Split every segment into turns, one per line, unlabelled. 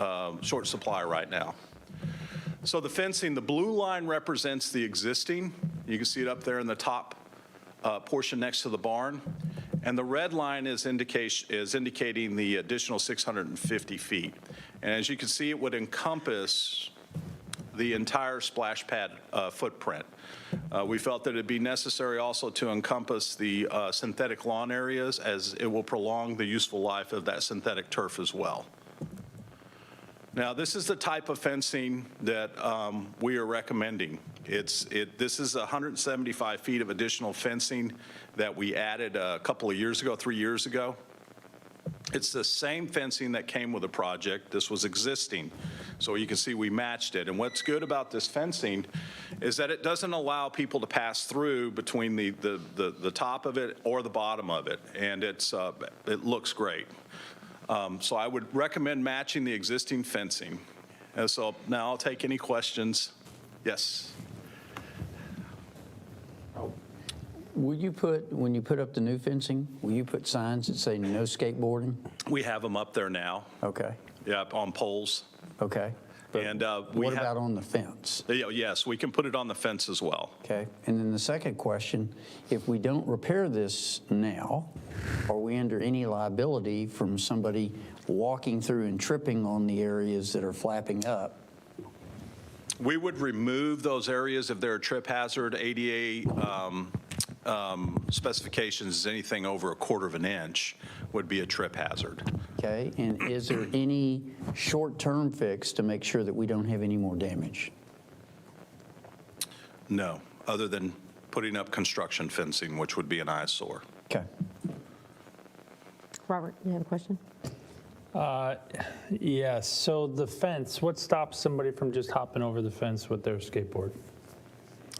um, short supply right now. So the fencing, the blue line represents the existing. You can see it up there in the top uh, portion next to the barn. And the red line is indication, is indicating the additional 650 feet. And as you can see, it would encompass the entire splash pad uh, footprint. Uh, We felt that it'd be necessary also to encompass the uh, synthetic lawn areas as it will prolong the useful life of that synthetic turf as well. Now, this is the type of fencing that um, we are recommending. It's, it, this is 175 feet of additional fencing that we added a couple of years ago, three years ago. It's the same fencing that came with the project. This was existing. So you can see we matched it. And what's good about this fencing is that it doesn't allow people to pass through between the, the, the, the top of it or the bottom of it. And it's, uh, it looks great. Um, so I would recommend matching the existing fencing. And so now I'll take any questions. Yes.
Will you put, when you put up the new fencing, will you put signs that say no skateboarding?
We have them up there now,
Okay,
yeah, on poles.
okay. But
And, uh, we
What
have-
about on the fence?
Yeah, oh, Yes, we can put it on the fence as well.
Okay, and then the second question, if we don't repair this now, are we under any liability from somebody walking through and tripping on the areas that are flapping up?
We would remove those areas if they're a trip hazard, ADA um, um, specifications, is anything over a quarter of an inch would be a trip hazard.
Okay, and is there any short-term fix to make sure that we don't have any more damage?
No, other than putting up construction fencing, which would be an eyesore.
Okay.
Robert, you have a question?
Yes, so the fence, what stops somebody from just hopping over the fence with their skateboard?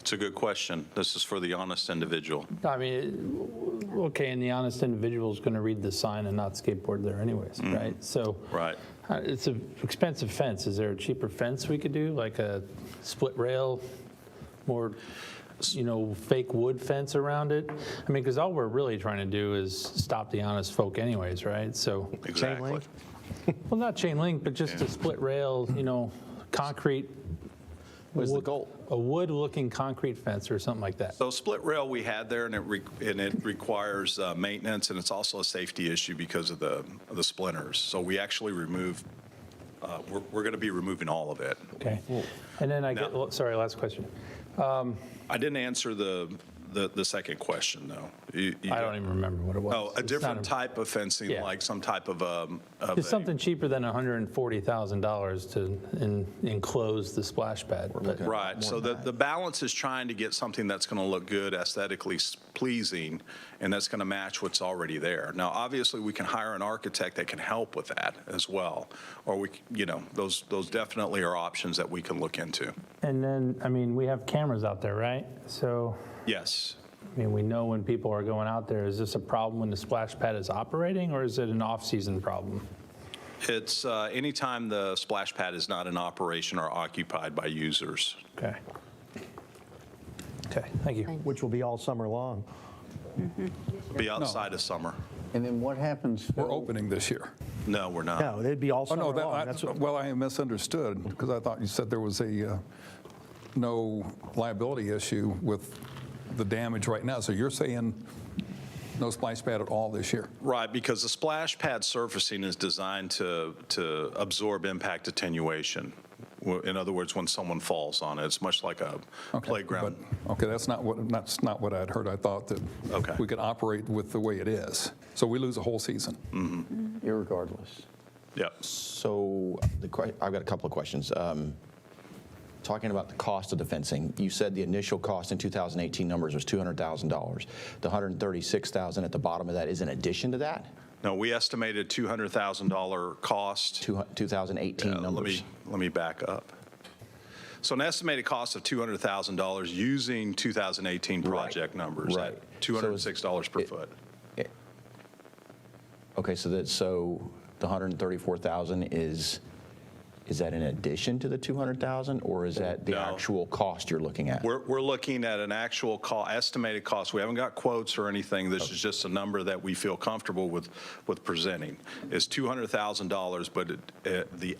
It's a good question. This is for the honest individual.
I mean, okay, and the honest individual is going to read the sign and not skateboard there anyways, right? So.
Right.
uh, It's an expensive fence. Is there a cheaper fence we could do, like a split rail, more, you know, fake wood fence around it? I mean, because all we're really trying to do is stop the honest folk anyways, right? So.
Exactly.
link?
Well, not chain link, but just a split rail, you know, concrete. Was
the goal.
A wood-looking concrete fence or something like that.
So split rail we had there, and it, re- and it requires uh, maintenance, and it's also a safety issue because of the, of the splinters. So we actually remove, uh, we're, we're going to be removing all of it.
Okay. And then I get, oh,
Now-
sorry, last question.
I didn't answer the, the, the second question, though. You- you-
I don't even remember what it was.
Oh, a
It's
different
not a-
type of fencing,
Yeah.
like some type of, um, of
It's
a-
something cheaper than $140,000 to en- enclose the splash pad. but-
Right, so the, the balance is trying to get something that's going to look good, aesthetically s- pleasing, and that's going to match what's already there. Now, obviously, we can hire an architect that can help with that as well, or we, c- you know, those, those definitely are options that we can look into.
And then, I mean, we have cameras out there, right? So,
Yes,
I mean, we know when people are going out there. Is this a problem when the splash pad is operating, or is it an off-season problem?
it's uh, anytime the splash pad is not in operation or occupied by users.
Okay. Okay, thank you.
Which will be all summer long.
Be outside of summer.
And then what happens?
We're
Phil,
opening this year.
No, we're not.
No, it'd be all
Oh,
summer
no, that,
long. That's
I-
what-
well, I misunderstood, because I thought you said there was a, uh, no liability issue with the damage right now. So you're saying no splash pad at all this year?
Right, because the splash pad surfacing is designed to, to absorb impact attenuation. Wh- In other words, when someone falls on it, it's much like a
Okay,
playground.
but- Okay, that's not what, that's not what I'd heard. I thought that
Okay.
we could operate with the way it is. So we lose a whole season.
Irregardless.
Yep.
So the que- I've got a couple of questions. Um, Talking about the cost of the fencing, you said the initial cost in 2018 numbers was $200,000. The 136,000 at the bottom of that is in addition to that,
No, we estimated $200,000 cost.
Two hu- 2018
Uh, Let
numbers.
me, let me back up. So an estimated cost of $200,000 using 2018 project numbers. at
right. So it's-
$206 per
it-
foot.
Okay, so that, so the 134,000 is, is that in addition to the 200,000? Or is that the
No.
actual cost you're looking at?
We're, we're looking at an actual call, estimated cost. We haven't got quotes or anything. This is just a number that we feel comfortable with, with presenting. It's $200,000, but it- it- the